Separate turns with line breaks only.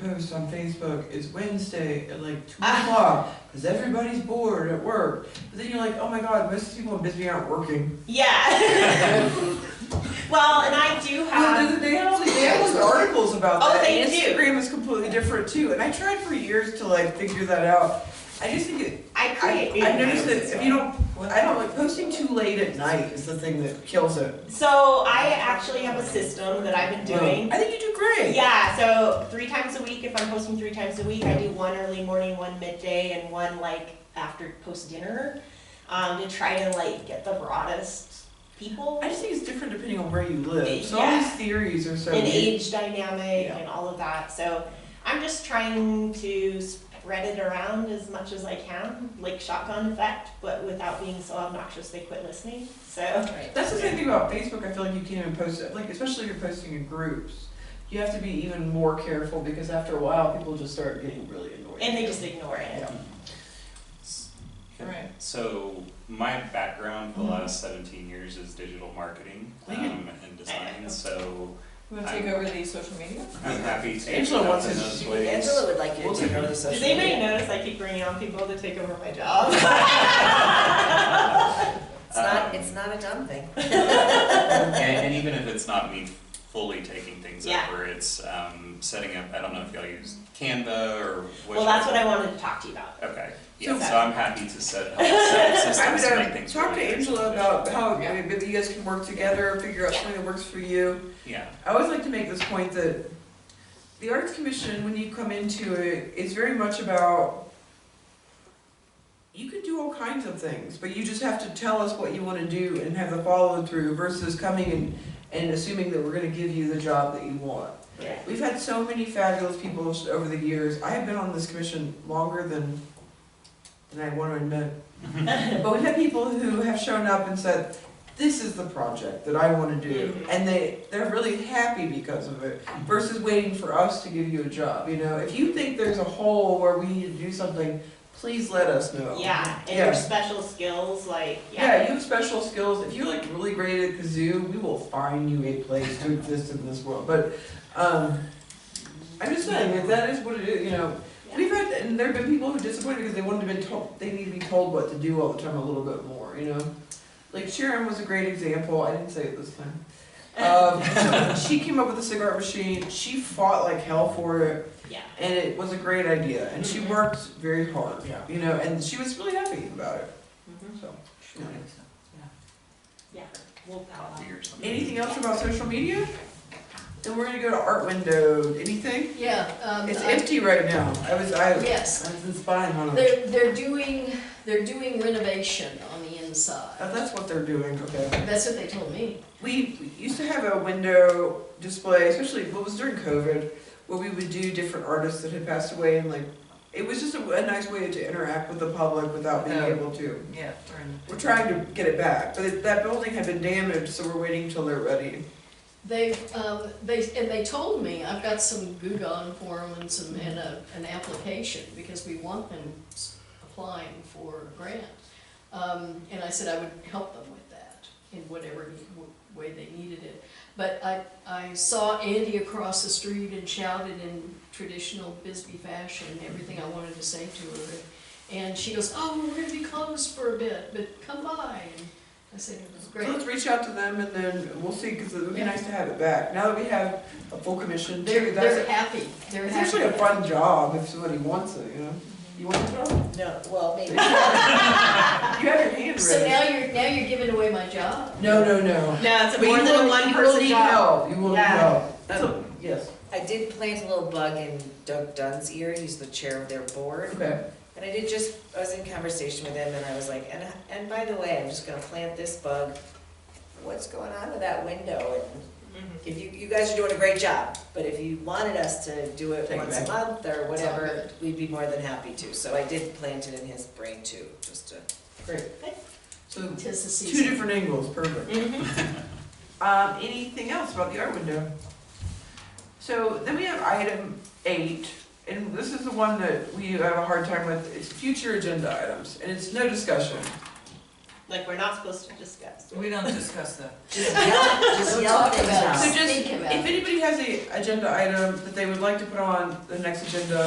post on Facebook, it's Wednesday at like two
Ah.
o'clock, cause everybody's bored at work. But then you're like, oh my god, most people in Bisbee aren't working.
Yeah. well, and I do
Well,
have.
they- they have all these, they have those articles about
Ah. Oh,
that.
they
and
do.
Instagram is completely different too, and I tried for years to like figure that out. I just think it,
I
I,
create.
I noticed that if you don't, I don't like posting too late at night is the thing that kills it.
So I actually have a system that I've been doing.
I think you do great.
Yeah, so three times a week, if I'm posting three times a week, I do one early morning, one midday, and one like after post dinner, um, to try to like get the broadest people
I just think it's different depending on where you live. So all
Yeah.
these theories are so.
and age dynamic
Yeah.
and all of that. So I'm just trying to spread it around as much as I can, like shotgun effect, but without being so obnoxious they quit listening. So
That's the same thing about Facebook. I feel like you can't even post it. Like especially if you're posting in groups, you have to be even more careful because after a while, people just start getting really annoyed.
and they just ignore it.
Yeah. All right.
So my background for the last 17 years is digital marketing
Thank you.
um, and design. So
Oh, You want to take over the social media?
I'm happy to
Angela
help
wants
in
to-
those
she-
ways.
Angela would like you
We'll
to
take another
Does
session.
anybody notice I keep bringing on people to take over my job?
It's not,
Um,
it's not a dumb thing.
and, and even if it's not me fully taking things
Yeah.
over, it's um, setting up. I don't know if y'all use Canva or. Which
well, that's what I wanted to talk to you about.
Okay. Yeah.
So-
So, I'm happy to set help set up
I
systems
would
to
uh,
make things.
talk to
really
Angela about
efficient.
how maybe maybe you guys can work together, figure out something that works for you.
Yeah.
I always like to make this point that the Arts Commission, when you come into it, is very much about you can do all kinds of things, but you just have to tell us what you want to do and have the follow through versus coming and, and assuming that we're going to give you the job that you want.
Yeah.
We've had so many fabulous people s- over the years. I have been on this commission longer than than I want to admit. But we've had people who have shown up and said, "This is the project that I want to do,"
Mhm.
and they they're really happy because of it. Versus waiting for us to give you a job. You know, if you think there's a hole where we need to do something, please let us know.
Yeah, and
Yeah.
your special skills, like
Yeah, you have special skills. If you're like really great at kazoo, we will find you a place to exist in this world. But um, I'm just saying that that is what it is. You know, we've had and there have been people who are disappointed because they wanted to have been told they need to be told what to do all the time a little bit more. You know, like Sharon was a great example. I didn't say it this time. Um, so she came up with a cigarette machine. She fought like hell for it
yeah.
and it was a great idea, and she worked very hard,
Yeah.
you know, and she was really happy about it,
Mhm.
so.
Yeah. We'll
Copy or something.
Anything else about social media? Then we're gonna go to art window, anything?
Yeah, um,
It's
I-
empty right now, I was, I, I
yes,
was inspired on it.
they're, they're doing, they're doing renovation on the inside.
Oh, that's what they're doing, okay.
That's what they told me.
We we used to have a window display, especially, what was during COVID, where we would do different artists that had passed away, and like, it was just a, a nice way to interact with the public without being
No.
able to.
Yeah, we're in.
We're trying to get it back, but it- that building had been damaged, so we're waiting till they're ready.
They've, um, they, and they told me, I've got some Gugon form and some, and a, an application, because we want them s- applying for a grant. Um, and I said I would help them with that, in whatever ne- w- way they needed it. But I, I saw Andy across the street and shouted in traditional Bisbee fashion, everything I wanted to say to her. And she goes, oh, we're gonna be closed for a bit, but come by, and I said,
So
great.
let's reach out to them and then we'll see, because it would be nice to have it back. Now that we have a full commission,
They're,
too,
they're
that's,
happy, they're
it's
happy.
actually a fun job if somebody wants it, you know? You want the job?
No, well, maybe.
You have your hand
So
raised.
now you're, now you're giving away my job?
No, no, no.
No, it's a
But you
more
will-
than one person
You will need
job.
help, you will need
Yeah.
help. So, yes,
I did plant a little bug in Doug Dunn's ear, he's the chair of their board.
okay.
And I did just, I was in conversation with him and I was like, and, and by the way, I'm just gonna plant this bug. What's going on with that window? And
Mm-hmm.
if you, you guys are doing a great job, but if you wanted us to do it
Take it
once
back.
a month or whatever,
good.
we'd be more than happy to. So I did plant it in his brain too, just to.
So,
Tis the
two
season.
different angles, perfect.
Mhm.
Um, anything else about the art window? So then we have item eight, and this is the one that we have a hard time with, it's future agenda items, and it's no discussion.
Like, we're not supposed to discuss.
We don't discuss that.
Just yell, just
We'll
yell
talk
things
about it.
out.
So just,
Think about
if
it.
anybody has a agenda item that they would like to put on the next agenda,